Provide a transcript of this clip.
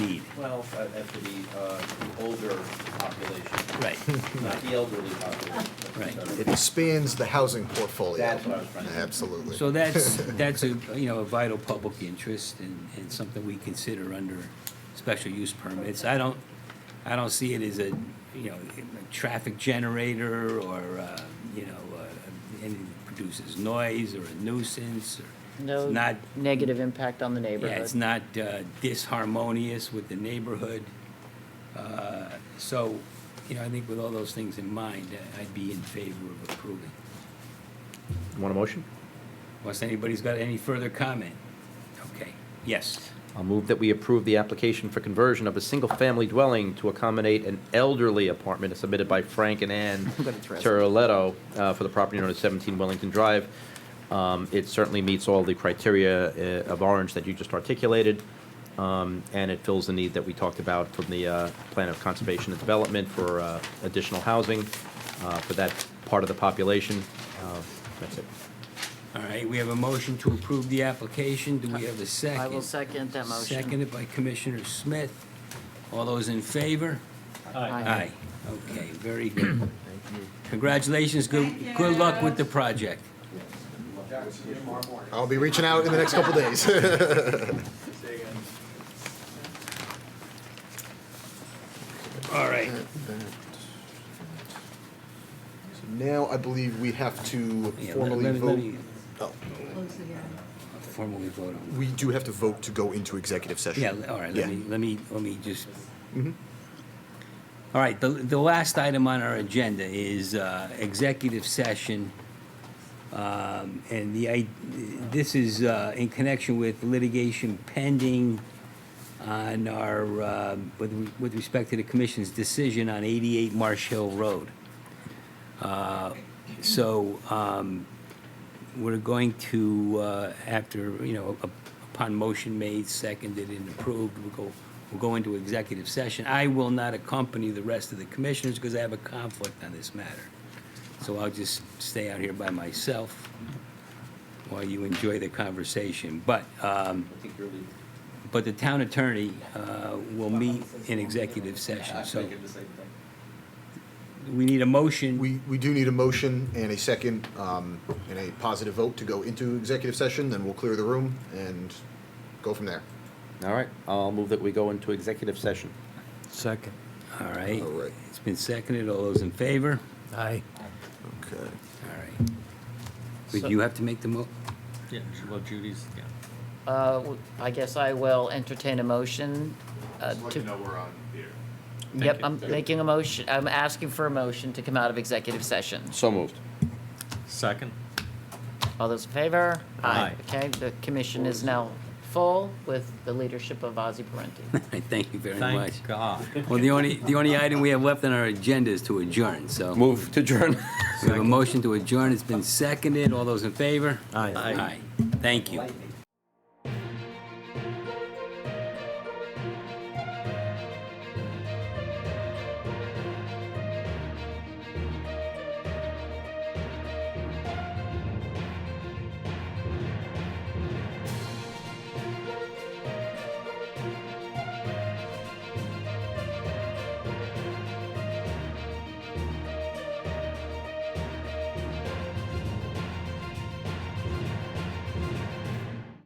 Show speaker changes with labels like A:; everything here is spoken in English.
A: well, uh, uh, for the, uh, the older population,
B: Right,
A: not the elderly population.
B: Right.
C: It expands the housing portfolio.
A: That's what I was trying to say.
C: Absolutely.
B: so that's, that's a, you know, a vital public interest and, and something we consider under special use permits. I don't, I don't see it as a, you know, a traffic generator or, uh, you know, uh, anything that produces noise or a nuisance or.
D: No
B: It's not,
D: negative impact on the
B: yeah,
D: neighborhood.
B: it's not uh, disharmonious with the neighborhood. Uh, So, you know, I think with all those things in mind, I- I'd be in favor of approving.
E: Want a motion?
B: Unless anybody's got any further comment? Okay, yes.
E: I'll move that we approve the application for conversion of a single-family dwelling to accommodate an elderly apartment submitted by Frank and Ann
D: gonna throw it.
E: Turletto uh, for the property known as 17 Wellington Drive. Um, It certainly meets all the criteria uh, of Orange that you just articulated, um, and it fills the need that we talked about from the uh, Plan of Conservation and Development for uh, additional housing uh, for that part of the population. Uh, That's it.
B: All right, we have a motion to approve the application. Do we have a second?
D: I will second that motion.
B: Seconded by Commissioner Smith. All those in favor?
D: Aye.
B: Okay, very good. Congratulations, good,
F: Thank
B: good luck
F: you.
B: with the project.
C: I'll be reaching out in the next couple days.
B: All right.
C: Now, I believe we have to
B: Yeah, let-
C: formally
B: let me- let me
C: vote. Oh,
F: Close the hearing.
B: Formally vote on
C: We do have to vote to go into executive session.
B: Yeah, all right, let
C: Yeah. Mm-hmm.
B: me, let me, let me just. All right, the, the last item on our agenda is uh, executive session. Um, And the, i- this is uh, in connection with litigation pending on our, um, with, with respect to the commission's decision on 88 Marsh Hill Road. Uh, So um, we're going to, uh, after, you know, up- upon motion made, seconded, and approved, we'll go, we'll go into executive session. I will not accompany the rest of the commissioners because I have a conflict on this matter. So I'll just stay out here by myself while you enjoy the conversson. But, um,
A: I think you're leaving.
B: but the town attorney uh, will meet in executive session.
A: I
B: So
A: figured the same thing.
B: we need a motion.
C: We, we do need a motion and a second, um, and a positive vote to go into executive session, then we'll clear the room and go from there.
E: All right, I'll move that we go into executive session.
G: Second.
B: All right.
C: All right.
B: It's been seconded. All those in favor?
G: Aye.
C: Okay.
B: All right. Would you have to make the mo,
G: Yeah, well, Judy's, yeah.
D: Uh, w- I guess I will entertain a motion uh,
H: Just let you
D: to,
H: know we're on here.
D: yep,
G: you.
D: I'm making a motion, I'm asking for a motion to come out of executive session.
E: So moved.
G: Second.
D: All those in favor?
G: Aye.
D: Okay, the commission is now full with the leadership of Ozzy Parenti.
B: Thank you very much.
G: Thank God.
B: Well, the only, the only item we have left on our agenda is to adjourn, so.
E: Move to adjourn.
B: We have a motion to adjourn. It's been seconded. All those in favor?
G: Aye.
B: Aye. Thank you.